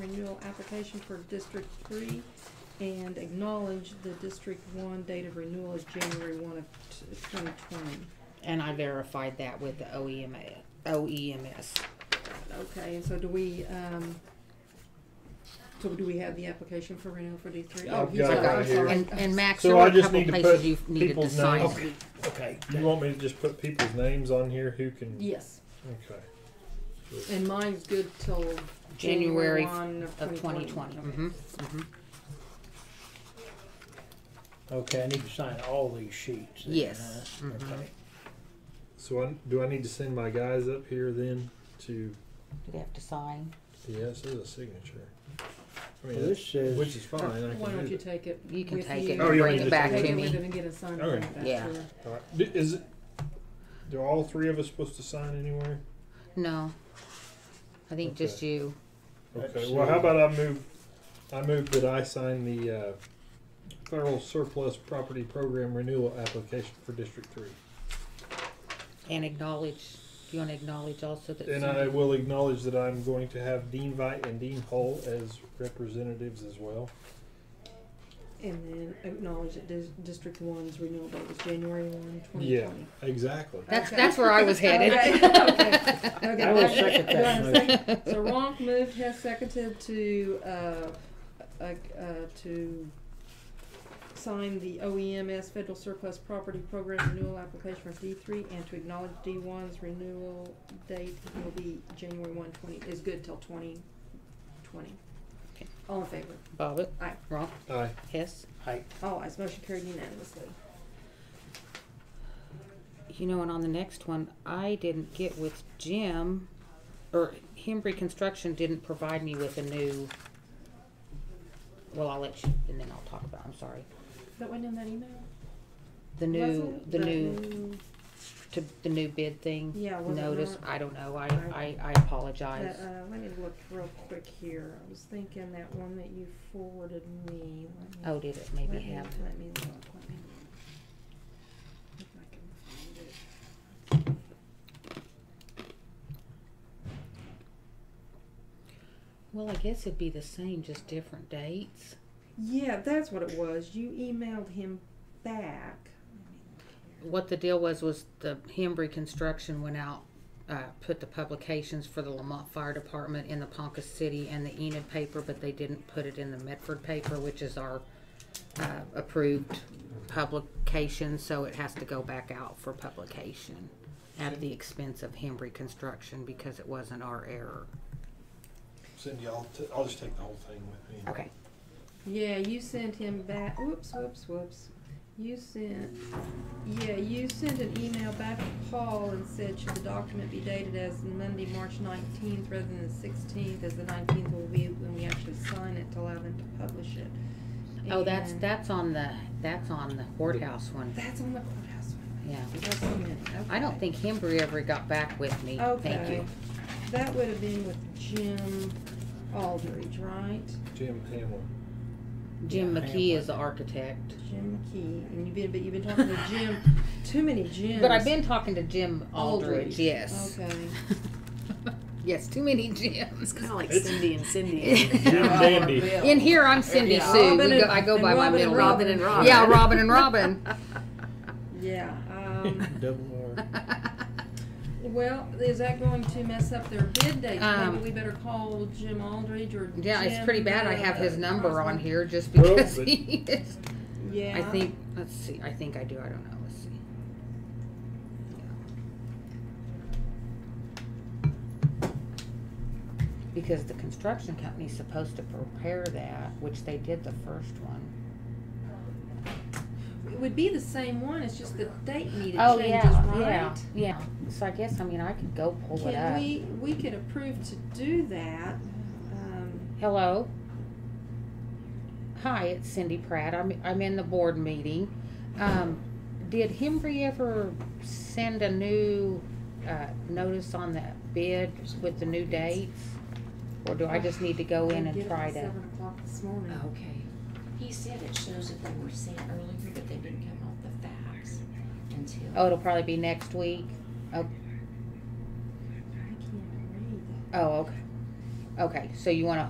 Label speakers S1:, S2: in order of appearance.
S1: renewal application for District Three and acknowledge the District One date of renewal is January one of twenty twenty.
S2: And I verified that with the E OEMA, OEMS.
S1: Okay, and so do we, um, so do we have the application for renewal for D three? Oh,
S3: I've
S1: he's
S3: got it
S1: got it.
S3: right
S1: I'm
S3: here.
S1: sorry.
S2: And, and Max,
S3: So
S2: there were
S3: I
S2: a
S3: just
S2: couple
S3: need to
S2: places
S3: put
S2: you needed to
S3: people's
S2: sign.
S3: names.
S2: Okay.
S3: Okay. You want me to just put people's names on here who can?
S1: Yes,
S3: Okay.
S1: and mine's good till
S2: January
S1: January one
S2: Of
S1: of twenty
S2: twenty twenty.
S1: twenty.
S2: Mm-hmm. Mm-hmm.
S4: Okay, I need to sign all these sheets. then,
S2: Yes.
S4: huh?
S3: Mm-hmm.
S2: Mhm.
S4: Okay.
S3: So I, do I need to send my guys up here then to?
S2: You have to sign.
S3: Yes, there's a signature. I mean,
S4: Well, this says-
S3: which is fine. I
S1: Why
S3: can
S1: don't
S3: do
S1: you
S3: it.
S1: take it?
S2: You can
S1: with
S2: take
S1: you?
S2: it
S3: Oh,
S2: and bring
S3: you want me
S2: it
S3: to
S2: back
S1: Take
S3: take
S2: to
S1: it with it
S2: me.
S1: and get it signed
S3: Okay.
S1: back to
S2: Yeah.
S1: her.
S3: All right. Do- Is it? Do all three of us supposed to sign anywhere?
S2: No. I think
S3: Okay.
S2: just you.
S3: Okay. Well, how about I move? I move that I sign the uh, federal surplus property program renewal application for District Three.
S2: And acknowledge, you wanna acknowledge also that.
S3: And I will acknowledge that I'm going to have Dean Veit and Dean Hull as representatives as well.
S1: And then acknowledge that Dis- District One's renewal date is January one, twenty
S3: Yeah,
S1: twenty.
S3: exactly.
S2: That's,
S1: Okay.
S2: that's where I was headed.
S1: Okay, okay.
S4: I will second
S1: Do I have
S4: that
S1: a
S4: motion.
S1: second? So Ronk moved, Hess seconded to, uh, uh, uh, to sign the OEMS Federal Surplus Property Program renewal application for D three and to acknowledge D one's renewal date will be January one twenty, is good till twenty twenty.
S2: Okay.
S1: All in favor?
S2: Bobbit.
S1: Aye.
S2: Wrong.
S3: Aye.
S2: Hess.
S4: I,
S1: All ayes, motion carried unanimously.
S2: You know, and on the next one, I didn't get with Jim, or Hembry Construction didn't provide me with a new. Well, I'll let you, and then I'll talk about. I'm sorry.
S1: That went in that email?
S2: The
S1: Was
S2: new,
S1: it?
S2: the
S1: That
S2: new, to the new bid thing.
S1: Yeah, was it
S2: Notice.
S1: not?
S2: I don't know. I,
S1: I-
S2: I, I apologize.
S1: That, uh, let me look real quick here. I was thinking that one that you forwarded me. Let me-
S2: oh, did it maybe
S1: let me-
S2: have?
S1: Let me look, let me. look. If I can find it.
S2: Well, I guess it'd be the same, just different dates.
S1: Yeah, that's what it was. You emailed him back.
S2: What the deal was was the Hembry Construction went out, uh, put the publications for the Lamont Fire Department in the Ponca City and the Enid paper, but they didn't put it in the Medford paper, which is our uh, approved publication, so it has to go back out for publication at the expense of Hembry Construction because it wasn't our error.
S3: Cindy, I'll, t- I'll just take the whole thing with me.
S2: Okay.
S1: Yeah, you sent him back. Whoops, whoops, whoops. You sent, yeah, you sent an email back to Paul and said, should the document be dated as Monday, March nineteenth rather than the sixteenth, as the nineteenth will be when we actually sign it to allow them to publish it.
S2: Oh, that's,
S1: And
S2: that's on the, that's on the courthouse one,
S1: That's on the courthouse one.
S2: yeah.
S1: Just a minute,
S2: I don't
S1: okay.
S2: think Hembry ever got back with me, thank
S1: Okay,
S2: you.
S1: that would have been with Jim Aldridge, right?
S3: Jim Hamlin.
S2: Jim
S4: Yeah,
S2: McKee
S4: Hamlin.
S2: is the architect.
S1: Jim McKee, and you've been, but you've been talking to Jim, too many Jims.
S2: But I've been talking to Jim Aldridge.
S1: Aldridge.
S2: Yes.
S1: Okay.
S2: yes, too many Jims.
S5: Kind of like
S3: It's-
S5: Cindy and Cindy.
S3: Jim Dandy.
S1: Oh,
S2: In here, I'm Cindy
S5: Yeah.
S2: Sue.
S1: Robin
S2: we go,
S1: and-
S2: I go
S1: and
S2: by my
S1: Robin
S2: middle
S1: and
S5: Robin
S2: name.
S5: and Robin.
S2: Yeah, Robin and Robin.
S1: Yeah, um,
S3: Double R.
S1: well, is that going to mess up their bid date? Maybe
S2: Um,
S1: we better call Jim Aldridge or
S2: yeah, it's pretty
S1: Jim,
S2: bad. I
S1: uh,
S2: have his number on
S1: Crosby.
S2: here just
S3: Well,
S2: because
S3: but-
S2: he is.
S1: Yeah.
S2: I think. Let's see. I think I do. I don't know. Let's see. Yeah. Because the construction company's supposed to prepare that, which they did the first one.
S1: It would be the same one, it's just the date needed
S2: Oh
S1: changes,
S2: yeah, yeah,
S1: right?
S2: yeah. So I guess I mean I could go pull it
S1: Can
S2: up.
S1: we, we could approve to do that, um,
S2: Hello. Hi, it's Cindy Pratt. I'm I'm in the board meeting. Um, did Hembry ever send a new uh, notice on that bid with the new dates, or do I just need to go in
S1: I
S2: and
S1: get up
S2: try
S1: at
S2: to? Oh.
S1: Seven o'clock this morning.
S2: Okay.
S5: He said it shows that they were sent earlier, but they didn't come off the fax until.
S2: Oh, it'll probably be next week.
S1: I can't read that.
S2: Oh, okay. Okay. So you want to